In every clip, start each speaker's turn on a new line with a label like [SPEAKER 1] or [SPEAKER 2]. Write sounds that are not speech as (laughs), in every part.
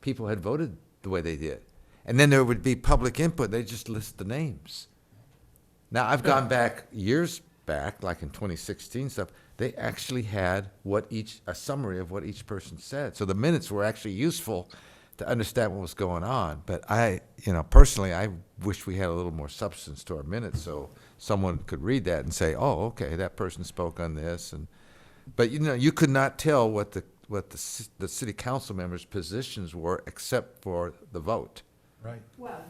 [SPEAKER 1] people had voted the way they did. And then there would be public input, they just list the names. Now, I've gone back years back, like in 2016 stuff, they actually had what each, a summary of what each person said. So the minutes were actually useful to understand what was going on. But I, you know, personally, I wish we had a little more substance to our minutes so someone could read that and say, oh, okay, that person spoke on this. And, but you know, you could not tell what the, what the, ci- the city council members' positions were except for the vote.
[SPEAKER 2] Right.
[SPEAKER 3] Well,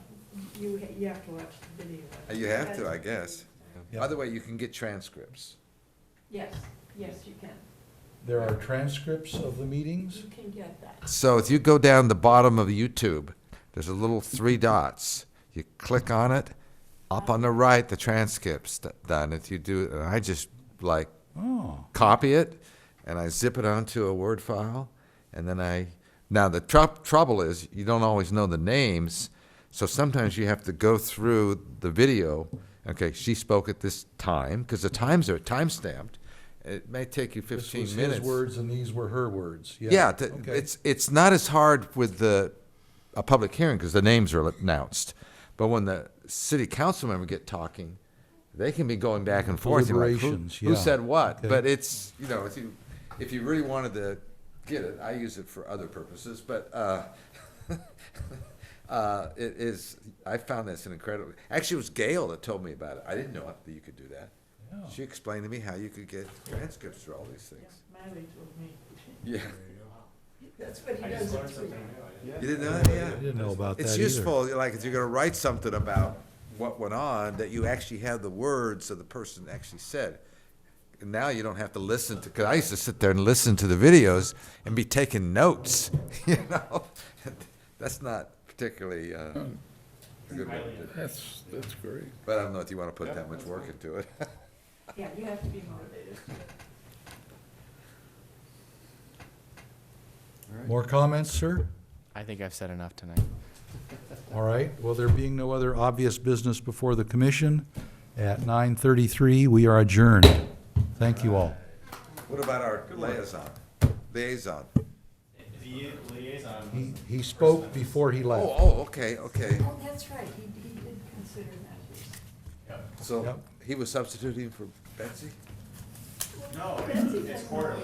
[SPEAKER 3] you, ha- you have to watch the video.
[SPEAKER 1] Uh, You have to, I guess.
[SPEAKER 2] Yeah.
[SPEAKER 1] By the way, you can get transcripts.
[SPEAKER 3] Yes, yes, you can.
[SPEAKER 2] There are transcripts of the meetings?
[SPEAKER 3] You can get that.
[SPEAKER 1] So if you go down the bottom of YouTube, there's a little
[SPEAKER 2] (laughs)
[SPEAKER 1] three dots. You click on it. Up on the right, the transcript's d- done. If you do, and I just like
[SPEAKER 2] Oh.
[SPEAKER 1] copy it and I zip it onto a Word file. And then I, now the tr- trouble is you don't always know the names. So sometimes you have to go through the video. Okay, she spoke at this time because the times are time stamped. It may take you 15
[SPEAKER 2] This was
[SPEAKER 1] minutes.
[SPEAKER 2] his words and these were her words, yeah.
[SPEAKER 1] Yeah, th-
[SPEAKER 2] okay.
[SPEAKER 1] it's, it's not as hard with the, a public hearing, because the names are announced. But when the city council member get talking, they can be going back and forth. You're like, who-
[SPEAKER 2] Deliberations,
[SPEAKER 1] Who
[SPEAKER 2] yeah.
[SPEAKER 1] said what?
[SPEAKER 2] Okay.
[SPEAKER 1] But it's, you know, if you, if you really wanted to get it, I use it for other purposes, but, uh, (laughs) uh, it is, I found this an incredible, actually, it was Gail that told me about it. I didn't know that you could do that.
[SPEAKER 2] Yeah.
[SPEAKER 1] She explained to me how you could get transcripts for all these things.
[SPEAKER 3] Miley told me.
[SPEAKER 1] Yeah.
[SPEAKER 3] That's what he does at three.
[SPEAKER 1] You didn't know that? Yeah.
[SPEAKER 2] I didn't know about that either.
[SPEAKER 1] It's useful, like, if you're gonna write something about what went on, that you actually have the words of the person actually said. And Now you don't have to listen to, because I used to sit there and listen to the videos and be taking notes, (laughs) you know? That's not particularly, uh, a good way to do it.
[SPEAKER 4] That's, that's great.
[SPEAKER 1] But I don't know if you wanna put that much work into it. (laughs)
[SPEAKER 3] Yeah, you have to be motivated.
[SPEAKER 2] More comments, sir?
[SPEAKER 5] I think I've said enough tonight.
[SPEAKER 2] All right, well, there being no other obvious business before the commission, at nine thirty-three, we are adjourned. Thank you all.
[SPEAKER 1] What about our liaison, liaison?
[SPEAKER 6] The liaison
[SPEAKER 2] He, he spoke before he
[SPEAKER 1] Oh,
[SPEAKER 2] left.
[SPEAKER 1] oh, okay, okay.
[SPEAKER 3] Oh, that's right, he, he did consider that.
[SPEAKER 1] So
[SPEAKER 2] Yep.
[SPEAKER 1] he was substituting for Betsy?
[SPEAKER 6] No,
[SPEAKER 3] Betsy
[SPEAKER 6] it's
[SPEAKER 3] doesn't
[SPEAKER 6] quarterly.